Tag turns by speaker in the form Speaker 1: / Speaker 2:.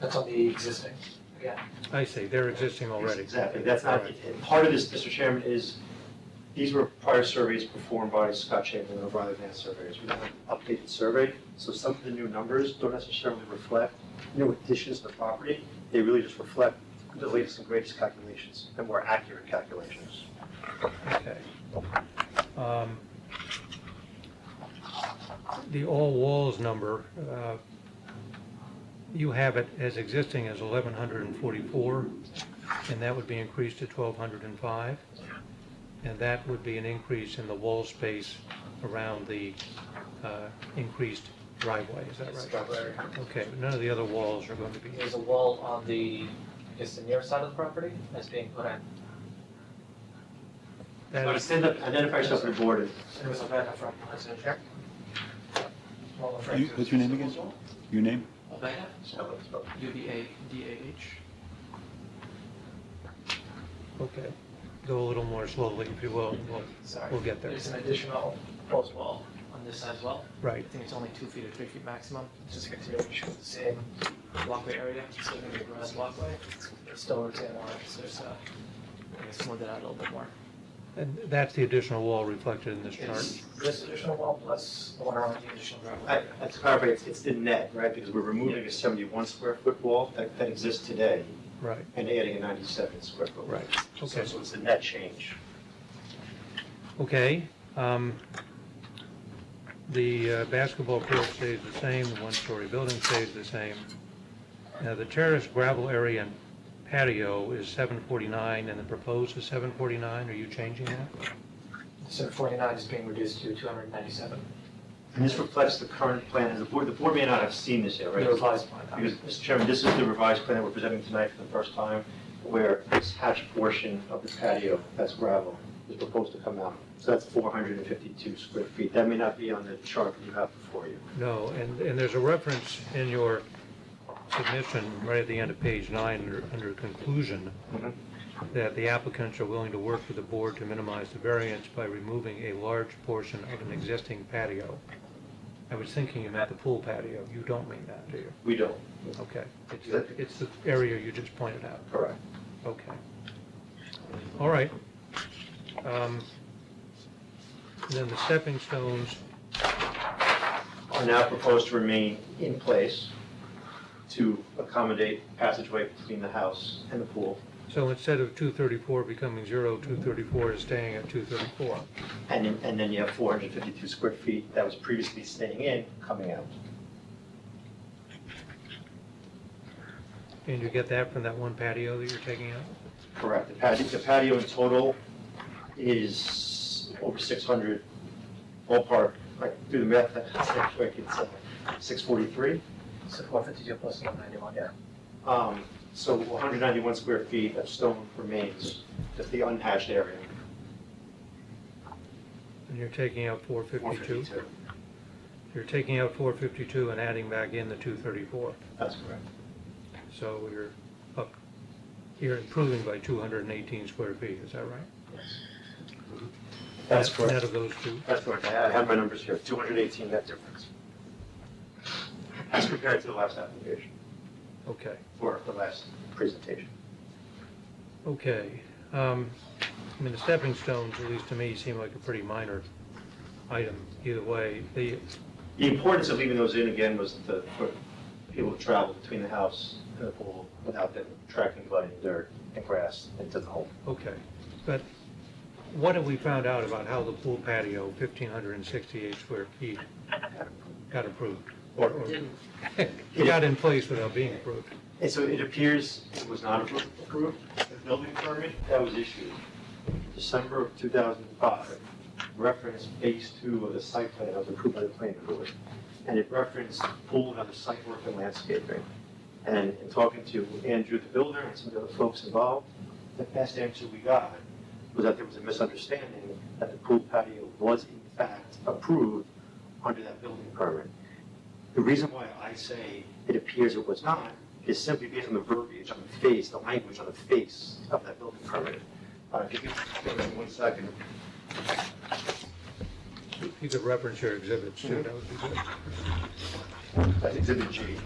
Speaker 1: That's on the existing, again.
Speaker 2: I see, they're existing already.
Speaker 3: Exactly, that's not,
Speaker 2: Alright.
Speaker 3: and part of this, Mr. Chairman, is, these were prior surveys performed by Scott Chamberlain or by advanced surveyors. We have an updated survey, so some of the new numbers don't necessarily reflect new additions to the property. They really just reflect the latest and greatest calculations, and more accurate calculations.
Speaker 2: Okay. Um, The all walls number, uh, you have it as existing as 1,144, and that would be increased to 1,205. And that would be an increase in the wall space around the uh, increased driveway, is that right? Okay, but none of the other walls are going to be,
Speaker 1: There's a wall on the, I guess, the near side of the property that's being put in.
Speaker 2: that is,
Speaker 3: Stand up, identify yourself for the board.
Speaker 1: There was a van in front, that's in check. Wall in front.
Speaker 4: You- What's your name again? Your name?
Speaker 5: Urbana,
Speaker 3: Spell it, spell
Speaker 5: U B A D A H.
Speaker 2: okay. Go a little more slowly, if you will, and we'll-
Speaker 5: Sorry.
Speaker 4: Oh,
Speaker 2: we'll get there.
Speaker 5: There's an additional post wall on this side as well. I
Speaker 2: Right.
Speaker 5: think it's only two feet or three feet maximum. It's just a continuation of the same walkway area, so there's a grass walkway. It's still retaining lines, there's uh, I guess smoothed it out a little bit more.
Speaker 2: And that's the additional wall reflected in this chart.
Speaker 5: It's this additional wall plus the one around the additional gravel.
Speaker 3: I, I- to clarify, it's, it's the net, right, because we're removing a seventy-one square foot wall that, that exists today
Speaker 2: Right,
Speaker 3: and adding a ninety-seven square foot. wall.
Speaker 2: right.
Speaker 3: So-
Speaker 2: Okay,
Speaker 3: So it's the net change.
Speaker 2: okay. um, The uh, basketball court stays the same, the one-story building stays the same. Now, the terrace gravel area and patio is 749, and the proposed is 749. Are you changing that?
Speaker 1: So forty-nine is being reduced to two hundred and ninety-seven.
Speaker 3: And this reflects the current plan, and the board, the board may not have seen this yet, right?
Speaker 1: There was last one.
Speaker 3: Because, Mr. Chairman, this is the revised plan that we're presenting tonight for the first time, where this hatch portion of the patio, that's gravel, is proposed to come out. So that's 452 square feet. That may not be on the chart that you have before you.
Speaker 2: No, and, and there's a reference in your submission, right at the end of page nine, under, under conclusion,
Speaker 3: Mhm.
Speaker 2: that the applicants are willing to work with the board to minimize the variance by removing a large portion of an existing patio. I was thinking you meant the pool patio. You don't mean that, do you?
Speaker 3: We don't.
Speaker 2: Okay. It's, the- it's the area you just pointed out.
Speaker 3: Correct.
Speaker 2: Okay. All right. Um, Then the stepping stones,
Speaker 3: Are now proposed to remain in place to accommodate passageway between the house and the pool.
Speaker 2: So instead of 234 becoming 0, 234 is staying at 234.
Speaker 3: And then, and then you have 452 square feet that was previously staying in, coming out.
Speaker 2: And you get that from that one patio that you're taking out?
Speaker 3: Correct. The patio, the patio in total is over six hundred ballpark, like, do the math, that's quick, it's six forty-three.
Speaker 1: So four fifty-two plus one ninety-one, yeah.
Speaker 3: Um, so one hundred ninety-one square feet of stone remains, just the unhatched area.
Speaker 2: And you're taking out 452?
Speaker 3: 452.
Speaker 2: You're taking out 452 and adding back in the 234.
Speaker 3: That's correct.
Speaker 2: So you're up, you're improving by 218 square feet, is that right?
Speaker 3: That's
Speaker 2: Net- Net
Speaker 3: correct.
Speaker 2: of those two?
Speaker 3: That's correct. I I have my numbers here, two hundred eighteen net difference. As compared to the last application,
Speaker 2: Okay,
Speaker 3: or the last presentation.
Speaker 2: okay. Um, I mean, the stepping stones, at least to me, seem like a pretty minor item either way. The,
Speaker 3: The importance of leaving those in again was the, for people to travel between the house and the pool without them tracking blood and dirt and grass into the home.
Speaker 2: Okay, but what have we found out about how the pool patio, 1,568 square feet, got approved? Or or- It got in place without being approved?
Speaker 3: And so it appears it was not appro- approved, the building permit that was issued December of 2005 referenced phase two of the site plan that was approved by the planning board. And it referenced pool and other site work and landscaping. And in talking to Andrew, the builder, and some of the other folks involved, the best answer we got was that there was a misunderstanding that the pool patio was in fact approved under that building permit. The reason why I say it appears it was not is simply based on the verbiage on the face, the language on the face of that building permit. Uh, if you could, give me one second.
Speaker 2: If you could reference your exhibits, too, that would be good.
Speaker 3: That's exhibit G.